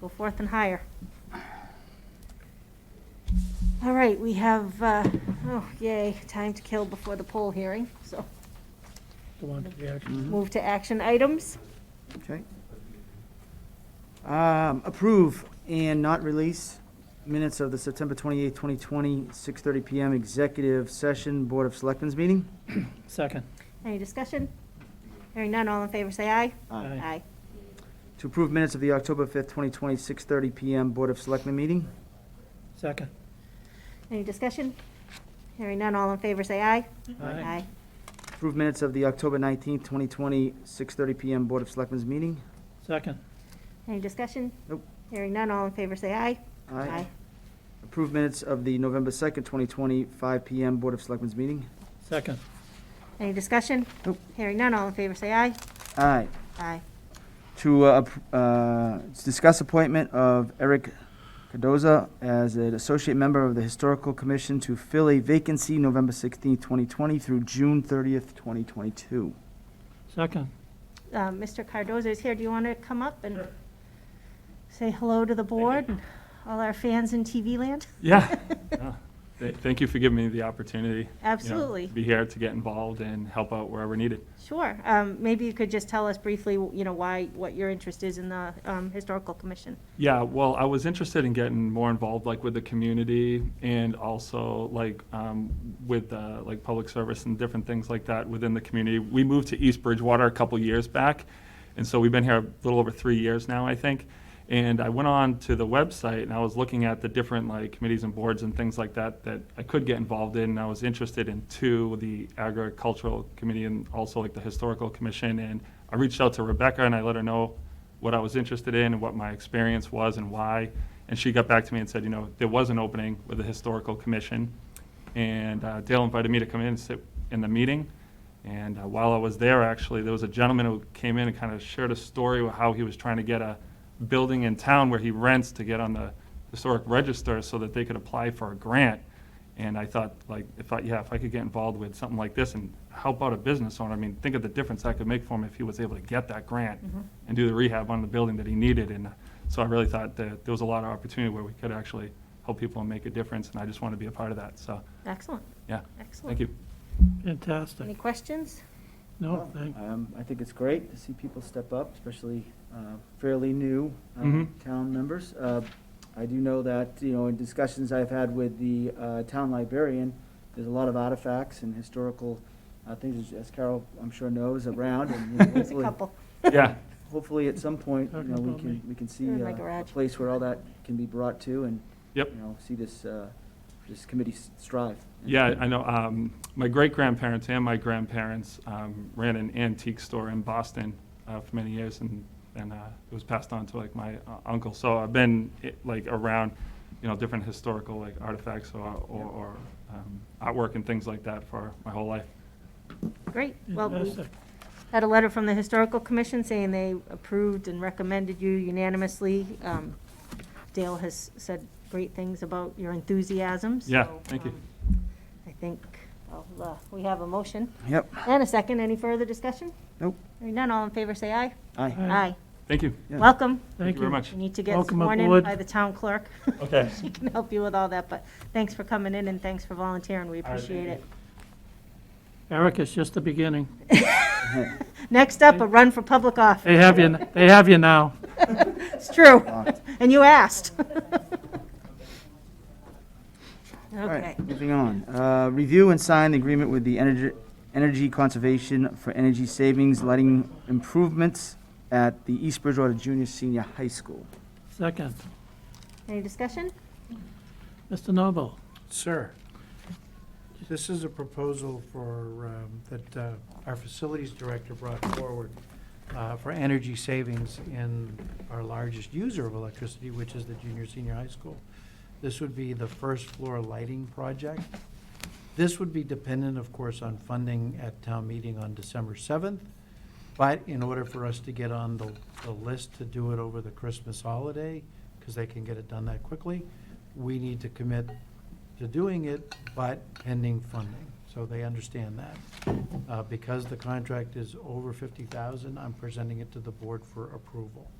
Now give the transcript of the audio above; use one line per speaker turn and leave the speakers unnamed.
Go forth and hire. All right, we have, uh, oh, yay, time to kill before the poll hearing, so
Go on to the action.
Hmm?
move to action items.
Okay. Um, Approve and not release minutes of the September 28, 2020, 6:30 PM Executive Session Board of Selectmen's meeting.
Second.
Any discussion? Hearing none, all in favor, say aye.
Aye.
Aye.
To approve minutes of the October 5th, 2020, 6:30 PM Board of Selectmen meeting.
Second.
Any discussion? Hearing none, all in favor, say aye.
Aye.
Approve minutes of the October 19th, 2020, 6:30 PM Board of Selectmen's meeting.
Second.
Any discussion?
Nope.
Hearing none, all in favor, say aye.
Approve minutes of the November 2nd, 2020, 5 PM Board of Selectmen's meeting.
Second.
Any discussion?
Nope.
Hearing none, all in favor, say aye.
Aye.
Aye.
to uh, appr- uh, to discuss appointment of Eric Cardoza as an associate member of the Historical Commission to fill a vacancy November 16, 2020 through June 30th, 2022.
Second.
Uh, Mr. Cardoza is here, do you want to come up and say hello to the board and all our fans in TV land?
Yeah. Yeah. Th- Thank you for giving me the opportunity. you know,
Absolutely.
to Be here to get involved and help out wherever needed.
Sure, um, maybe you could just tell us briefly, you know, why, what your interest is in the um, Historical Commission.
Yeah, well, I was interested in getting more involved, like with the community and also like um, with uh, like public service and different things like that within the community. We moved to East Bridgewater a couple years back, and so we've been here a little over three years now, I think. And I went on to the website and I was looking at the different like committees and boards and things like that that I could get involved in. And I was interested in two, the agricultural committee and also like the historical commission. And I reached out to Rebecca and I let her know what I was interested in and what my experience was and why. And she got back to me and said, you know, there was an opening with the historical commission. And uh, Dale invited me to come in and sit in the meeting. And uh, while I was there, actually, there was a gentleman who came in and kind of shared a story of how he was trying to get a building in town where he rents to get on the historic register so that they could apply for a grant. And I thought, like, if I, yeah, if I could get involved with something like this and help out a business owner, I mean, think of the difference I could make for him if he was able to get that grant and do the rehab on the building that he needed. And so I really thought that there was a lot of opportunity where we could actually help people and make a difference, and I just want to be a part of that. So,
Excellent,
yeah,
excellent.
thank you.
Any
Fantastic.
questions?
No, thank,
Um, I think it's great to see people step up, especially uh, fairly new uh,
Mhm.
Mm-hmm.
town members. Uh, I do know that, you know, in discussions I've had with the uh, town librarian, there's a lot of artifacts and historical uh, things, as Carol, I'm sure, knows around. and you know,
There's a
hopefully-
couple.
Yeah,
hopefully at some point, you
Talking
know, we
about
can,
me.
we can see
They're in
uh,
my
a
garage.
place where all that can be brought to and, you
Yep.
know, see this, uh, this committee s- strive.
Yeah, I know. Um, my great grandparents and my grandparents um, ran an antique store in Boston uh, for many years, and and uh, it was passed on to like my uh, uncle. So I've been eh, like around, you know, different historical like artifacts or or, or um, artwork and things like that for my whole life.
Great, well, we
fantastic.
had a letter from the Historical Commission saying they approved and recommended you unanimously. Um, Dale has said great things about your enthusiasm, so.
Yeah, thank you.
um, I think, I'll, uh, we have a motion
Yep,
and a second. Any further discussion?
nope,
Hearing none, all in favor, say aye.
aye.
Aye.
Thank you.
Yeah.
Welcome.
Thank you very much.
You need to get
Welcome
sworn in
aboard.
by the town clerk.
Okay.
She can help you with all that, but thanks for coming in and thanks for volunteering. We
right, thank
appreciate
you.
it.
Eric, it's just the beginning.
Next up, a run for public office.
They have you, they have you now.
It's true. And you asked.
All
Okay.
right, moving on. Uh, Review and sign the agreement with the Energy, Energy Conservation for Energy Savings Lighting Improvements at the East Bridgewater Junior Senior High School.
Second.
Any discussion?
Mr. Noble,
Sir, this is a proposal for, um, that uh, our facilities director brought forward uh, for energy savings in our largest user of electricity, which is the junior, senior high school. This would be the first floor lighting project. This would be dependent, of course, on funding at town meeting on December 7th. But in order for us to get on the, the list to do it over the Christmas holiday, because they can get it done that quickly, we need to commit to doing it, but pending funding. So they understand that. Uh, Because the contract is over 50,000, I'm presenting it to the board for approval.